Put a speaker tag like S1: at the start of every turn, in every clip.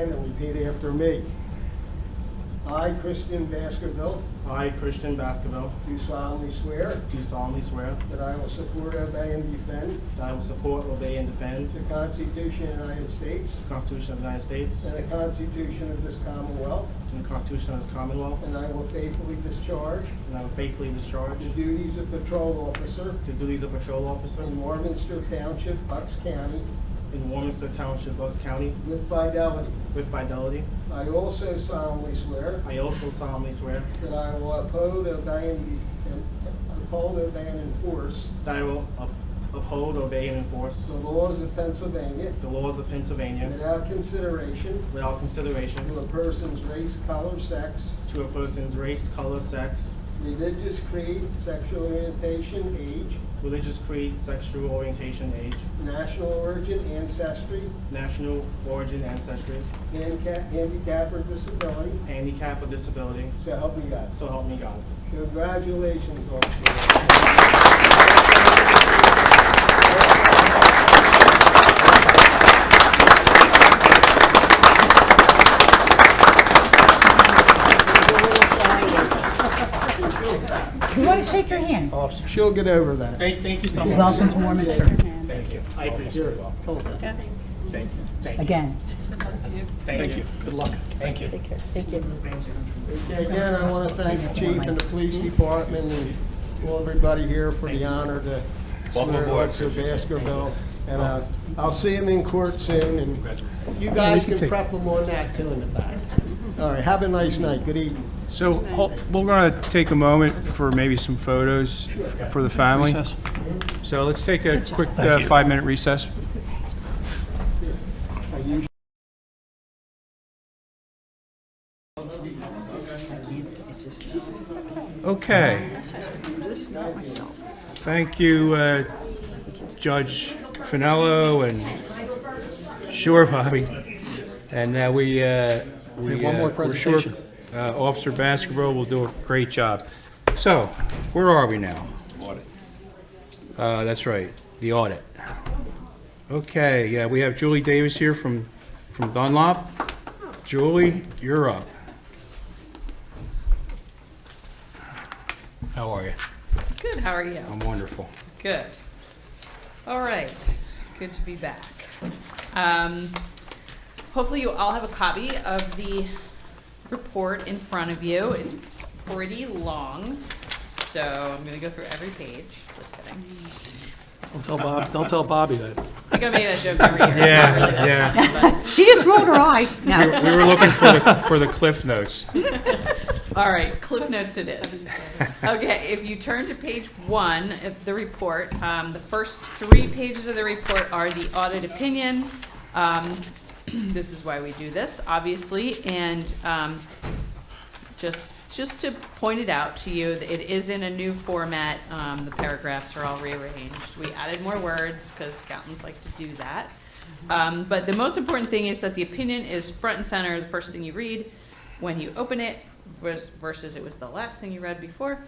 S1: and repeat after me. I, Christian Baskerville,
S2: I, Christian Baskerville,
S1: do solemnly swear
S2: do solemnly swear
S1: that I will support, obey, and defend
S2: that I will support, obey, and defend
S1: the Constitution of the United States
S2: the Constitution of the United States
S1: and the Constitution of this Commonwealth,
S2: and the Constitution of this Commonwealth,
S1: and I will faithfully discharge
S2: and I will faithfully discharge
S1: the duties of patrol officer
S2: the duties of patrol officer
S1: in Warminster Township, Bucks County,
S2: in Warminster Township, Bucks County,
S1: with fidelity.
S2: with fidelity.
S1: I also solemnly swear
S2: I also solemnly swear
S1: that I will uphold, obey, and def- uphold, obey, and enforce
S2: that I will up- uphold, obey, and enforce
S1: the laws of Pennsylvania
S2: the laws of Pennsylvania
S1: without consideration
S2: without
S1: to
S2: consideration
S1: a person's race, color, sex,
S2: to a person's race, color, sex,
S1: religious creed, sexual orientation, age,
S2: religious creed, sexual orientation, age,
S1: national origin, ancestry,
S2: national origin, ancestry,
S1: handicap, handicap or disability.
S2: handicap, or disability.
S1: So help me God.
S2: So help me God.
S1: Congratulations, officer.
S3: You want to shake your hand?
S1: She'll get over that.
S2: Thank, thank you so much.
S3: Welcome to Warminster,
S2: Thank you. I appreciate it.
S1: Hold that.
S2: Thank you. Thank you.
S3: again.
S2: Thank you. Good luck. Thank you.
S1: Okay, Again, I want to thank the chief and the police department and all everybody here for the honor to swear Officer Baskerville. And uh, I'll see him in court soon, and you guys can prep him on that too in the back. All right, have a nice night. Good evening.
S4: So hol- we're going to take a moment for maybe some photos for the family. So let's take a quick uh, five-minute recess.
S1: I usually
S4: Okay. Thank you, uh, Judge Finello and Sure, Bobby.
S5: And now we, uh, we.
S4: have one more
S5: uh, we're sure,
S4: presentation.
S5: uh, Officer Baskerville will do a great job. So, where are we now? Audit. Uh, that's right, the audit. Okay, yeah, we have Julie Davis here from, from Dunlop. Julie, you're up. How are you?
S6: Good, how are you?
S5: I'm wonderful.
S6: Good. All right, good to be back. Um, hopefully you all have a copy of the report in front of you. It's pretty long, so I'm gonna go through every page, just kidding.
S7: Don't tell Bob, don't tell Bobby that.
S6: I think I made that joke every year. It's not really that
S5: yeah.
S6: bad, but-
S3: She just rolled her eyes. No.
S5: We were looking for the, for the Cliff Notes.
S6: All right, Cliff Notes it is. Okay, if you turn to page one of the report, um, the first three pages of the report are the audit opinion. Um, this is why we do this, obviously, and, um, just, just to point it out to you, that it is in a new format, um, the paragraphs are all rearranged. We added more words, because accountants like to do that. Um, but the most important thing is that the opinion is front and center, the first thing you read when you open it vers- versus it was the last thing you read before.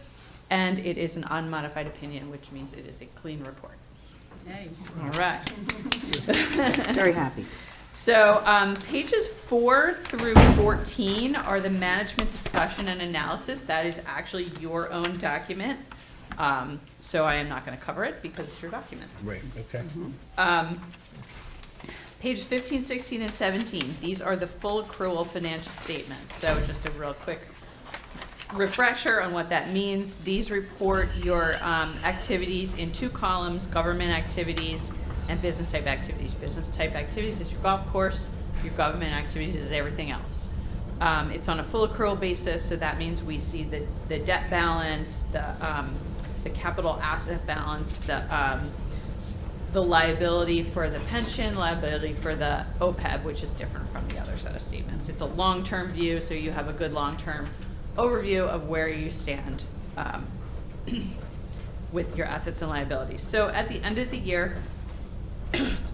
S6: And it is an unmodified opinion, which means it is a clean report. All right.
S3: Very happy.
S6: So um, pages four through 14 are the management discussion and analysis. That is actually your own document. Um, so I am not going to cover it because it's your document.
S5: Right, okay.
S6: Um, Page 15, 16, and 17, these are the full accrual financial statements. So just a real quick refresher on what that means. These report your um, activities in two columns, government activities and business type activities. Business type activities is your golf course, your government activities is everything else. Um, It's on a full accrual basis, so that means we see the, the debt balance, the, um, the capital asset balance, the, um, the liability for the pension, liability for the OPEB, which is different from the other set of statements. It's a long-term view, so you have a good long-term overview of where you stand um, with your assets and liabilities. So at the end of the year,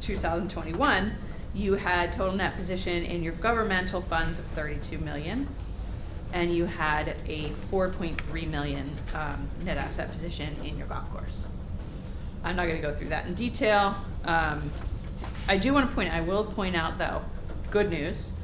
S6: 2021, you had total net position in your governmental funds of 32 million, and you had a 4.3 million um, net asset position in your golf course. I'm not gonna go through that in detail. Um, I do wanna point, I will point out though, good news,